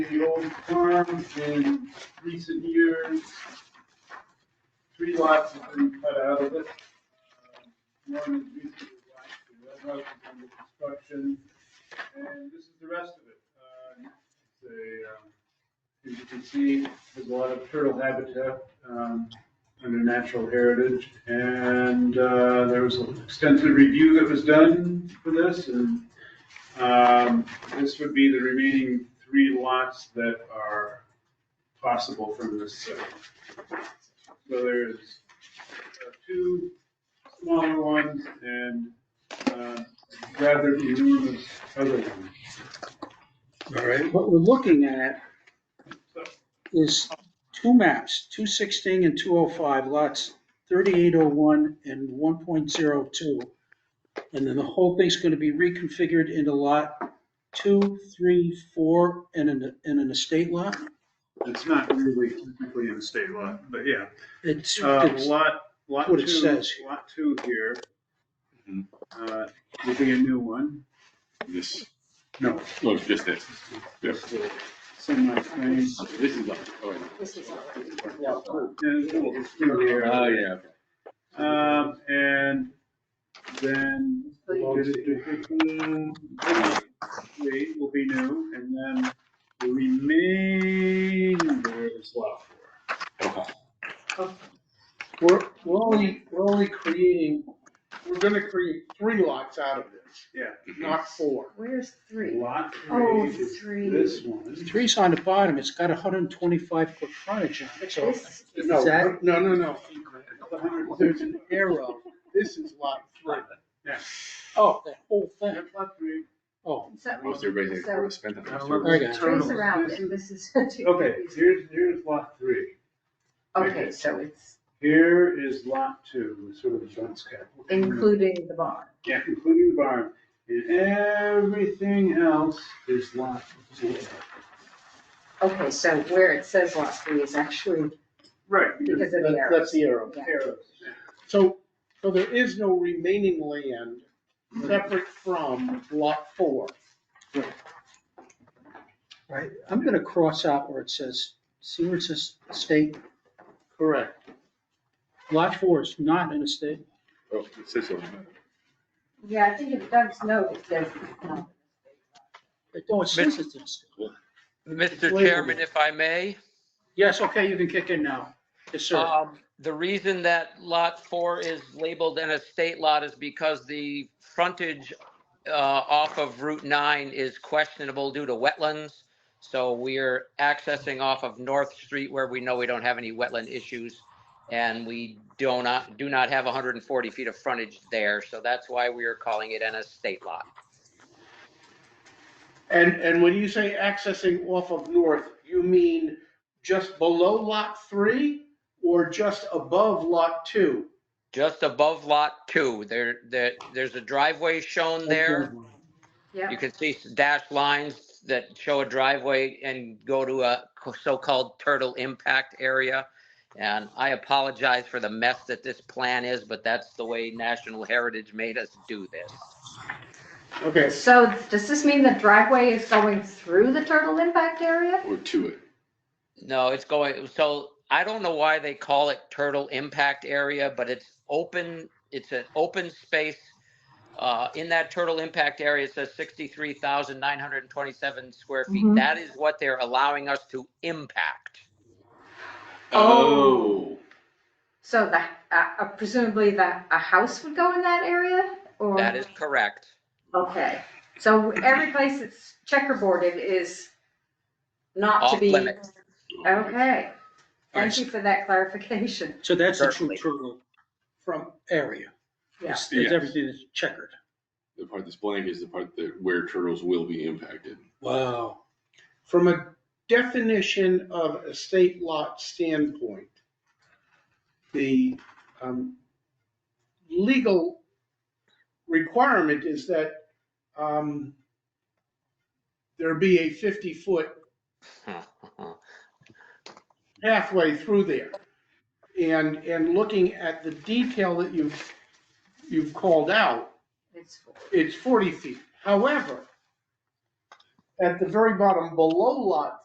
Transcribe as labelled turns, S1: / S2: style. S1: the old farm in recent years. Three lots have been cut out of it. Um, One is recently last year, that house is under construction, and this is the rest of it. Uh, It's a, um, as you can see, there's a lot of turtle habitat um, under natural heritage. And uh, there was an extensive review that was done for this, and um, this would be the remaining three lots that are possible from this site. So there's uh, two smaller ones and uh, rather enormous other one.
S2: All right,
S3: What we're looking at
S1: So
S3: is two maps, 216 and 205, lots 3801 and 1.02. And then the whole thing's going to be reconfigured into lot two, three, four, and an, and an estate lot.
S1: It's not really technically an estate lot, but yeah.
S3: It's,
S1: Uh,
S3: it's-
S1: Lot, lot
S3: what it
S1: two,
S3: says.
S1: lot two here.
S4: Mhm.
S1: Uh, Would be a new one.
S4: This,
S1: No.
S4: oh, it's just this. Yeah.
S1: Semi frame.
S4: This is, oh,
S5: This is already.
S4: uh, yeah, okay.
S1: Um, and then three will be new, and then the remainder is lot four.
S4: Okay.
S6: We're, we're only, we're only creating, we're gonna create three lots out of this,
S1: Yeah,
S6: not four.
S5: Where's three?
S1: lot
S5: Oh,
S1: three is
S5: three.
S1: this one.
S3: three's on the bottom, it's got 125 foot frontage on it, so
S5: This,
S6: No, no,
S3: that-
S6: no, no.
S1: The hundred-
S6: There's an
S3: arrow,
S6: This is lot three.
S3: oh, that whole thing,
S1: Yeah, lot three.
S3: oh,
S5: so,
S4: Most everybody that was spent on
S1: I
S4: this.
S1: love
S3: I got
S4: tour.
S3: it.
S5: trees around it, this is.
S1: Okay, here's, here's lot three.
S5: Okay, so it's
S1: Here is lot two, sort of the dunce cap.
S5: including the barn.
S1: Yeah, including the barn. And everything else is lot four.
S5: Okay, so where it says lot three is actually,
S1: Right.
S5: Because of the
S6: That- That's the arrow.
S5: yeah.
S1: arrows.
S6: So, so there is no remaining land separate from lot four.
S3: right, I'm going to cross out where it says, see where it says estate,
S6: Correct.
S3: lot four is not an estate.
S4: Oh, it says so.
S5: yeah, I think in Doug's note, it says. no.
S3: It don't, it says it's an estate.
S7: Mr. Chairman, if I may,
S3: Yes, okay, you can kick in now. Yes, sir.
S7: um, the reason that lot four is labeled an estate lot is because the frontage uh, off of Route 9 is questionable due to wetlands. So we're accessing off of North Street where we know we don't have any wetland issues. And we do not, do not have 140 feet of frontage there. So that's why we are calling it an estate lot.
S6: And, and when you say accessing off of north, you mean just below lot three or just above lot two?
S7: Just above lot two, there, there, there's a driveway shown there.
S5: Yeah,
S7: You can see s- dashed lines that show a driveway and go to a co- so-called turtle impact area. And I apologize for the mess that this plan is, but that's the way National Heritage made us do this.
S6: Okay,
S5: so does this mean the driveway is going through the turtle impact area?
S4: Or to it.
S7: No, it's going, so I don't know why they call it turtle impact area, but it's open, it's an open space. Uh, in that turtle impact area, it says sixty-three thousand nine hundred and twenty-seven square feet.
S5: Mhm.
S7: That is what they're allowing us to impact.
S4: Oh.
S5: So the, uh, presumably the, a house would go in that area or?
S7: That is correct.
S5: Okay, so every place that's checkerboarded is not to
S7: Off
S5: be.
S7: limits.
S4: Oh.
S5: Okay, thank
S3: Alright.
S5: you for that clarification.
S3: So that's the true
S7: Certainly.
S3: turtle from area. It's, it's
S4: Yes.
S3: everything that's checkered.
S4: The part that's blank is the part that where turtles will be impacted.
S3: Wow.
S6: from a definition of estate lot standpoint, the um, legal requirement is that um, there be a 50-foot pathway through there. And, and looking at the detail that you've, you've called out,
S5: It's for-
S6: it's 40 feet. However, at the very bottom, below lot